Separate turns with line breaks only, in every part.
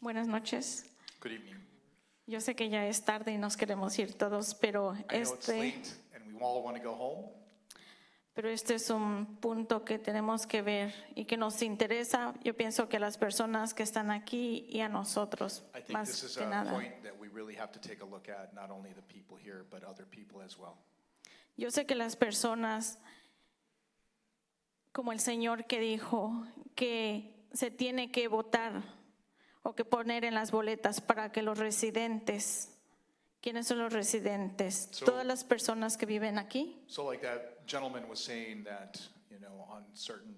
Buenas noches.
Good evening.
Yo sé que ya es tarde y nos queremos ir todos, pero
I know it's
este,
late and we all want to go home,
pero este es un punto que tenemos que ver y que nos interesa. Yo pienso que a las personas que están aquí y a nosotros,
I think this
más
is
que
a
nada.
point that we really have to take a look at, not only the people here, but other people as well.
Yo sé que las personas, como el Señor que dijo, que se tiene que votar o que poner en las boletas para que los residentes, ¿quiénes son los residentes?
So-
Todas las personas que viven aquí.
So like that gentleman was saying that, you know, on certain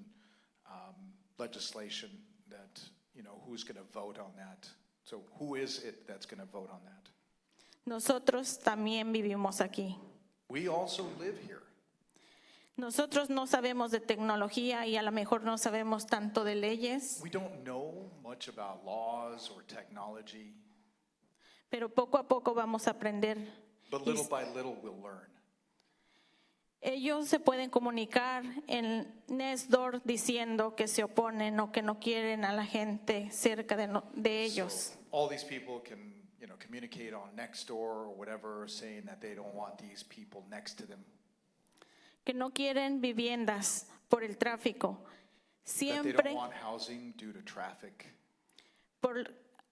um, legislation that, you know, who's going to vote on that? So who is it that's going to vote on that?
Nosotros también vivimos aquí.
We also live here.
Nosotros no sabemos de tecnología y a lo mejor no sabemos tanto de leyes,
We don't know much about laws or technology,
pero poco a poco vamos a aprender.
but little by little we'll learn.
Ellos se pueden comunicar en Nesdor diciendo que se oponen o que no quieren a la gente cerca de, no- de ellos.
So all these people can, you know, communicate on Nextdoor or whatever, saying that they don't want these people next to them.
Que no quieren viviendas por el tráfico.
That they don't
Siempre
want housing due to traffic.
por-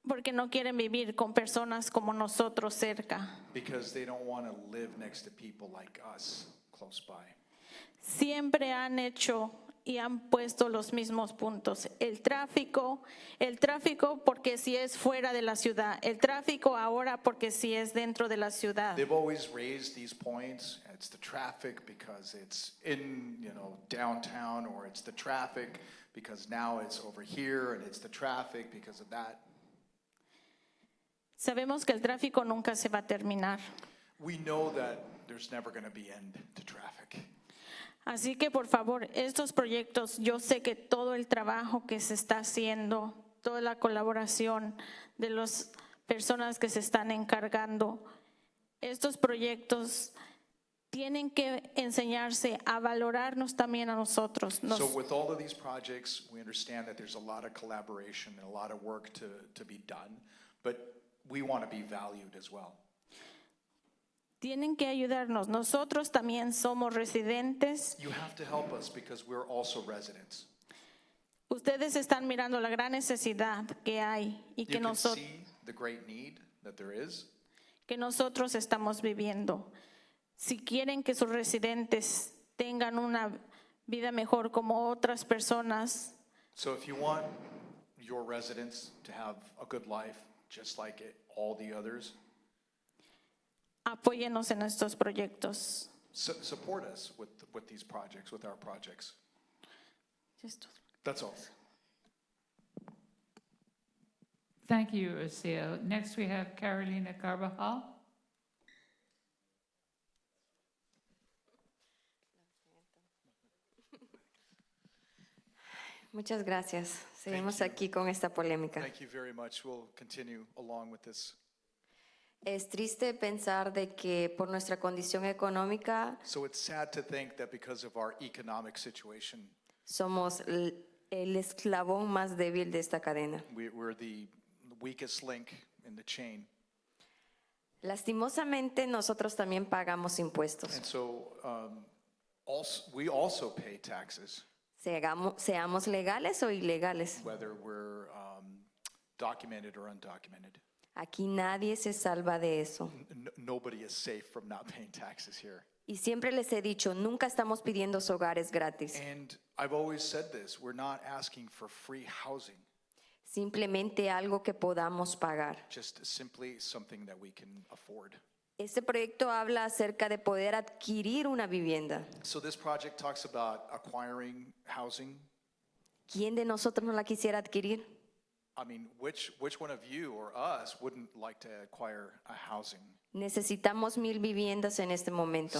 porque no quieren vivir con personas como nosotros cerca.
Because they don't want to live next to people like us close by.
siempre han hecho y han puesto los mismos puntos. El tráfico, el tráfico porque si es fuera de la ciudad, el tráfico ahora porque si es dentro de la ciudad.
They've always raised these points. It's the traffic because it's in, you know, downtown, or it's the traffic because now it's over here, and it's the traffic because of that.
Sabemos que el tráfico nunca se va a terminar.
We know that there's never going to be end to traffic.
Así que por favor, estos proyectos, yo sé que todo el trabajo que se está haciendo, toda la colaboración de las personas que se están encargando, estos proyectos tienen que enseñarse a valorarnos también a nosotros. Nos-
So with all of these projects, we understand that there's a lot of collaboration and a lot of work to, to be done, but we want to be valued as well.
tienen que ayudarnos. Nosotros también somos residentes.
You have to help us because we're also residents.
Ustedes están mirando la gran necesidad que hay y
You
que,
can
nosotros
see the great need that there is.
que nosotros estamos viviendo. Si quieren que sus residentes tengan una vida mejor como otras personas,
So if you want your residents to have a good life, just like it- all the others,
apóyenos en estos proyectos.
su- support us with, with these projects, with our projects. That's all.
Thank you, Rocio. Next, we have Carolina Carvajal.
Muchas gracias. Seguimos aquí con esta polémica.
Thank you very much. We'll continue along with this.
Es triste pensar de que por nuestra condición económica
So it's sad to think that because of our economic situation,
somos l- el esclavón más débil de esta cadena.
we, we're the weakest link in the chain.
Lastimosamente nosotros también pagamos impuestos.
And so um, also, we also pay taxes,
Seamos, seamos legales o ilegales.
whether we're um, documented or undocumented.
Aquí nadie se salva de eso.
N- nobody is safe from not paying taxes here.
Y siempre les he dicho, nunca estamos pidiendo hogares gratis.
And I've always said this we're not asking for free housing,
Simplemente algo que podamos pagar.
just simply something that we can afford.
Este proyecto habla acerca de poder adquirir una vivienda.
So this project talks about acquiring housing
¿Quién de nosotros no la quisiera adquirir?
I mean, which, which one of you or us wouldn't like to acquire a housing?
Necesitamos mil viviendas en este momento.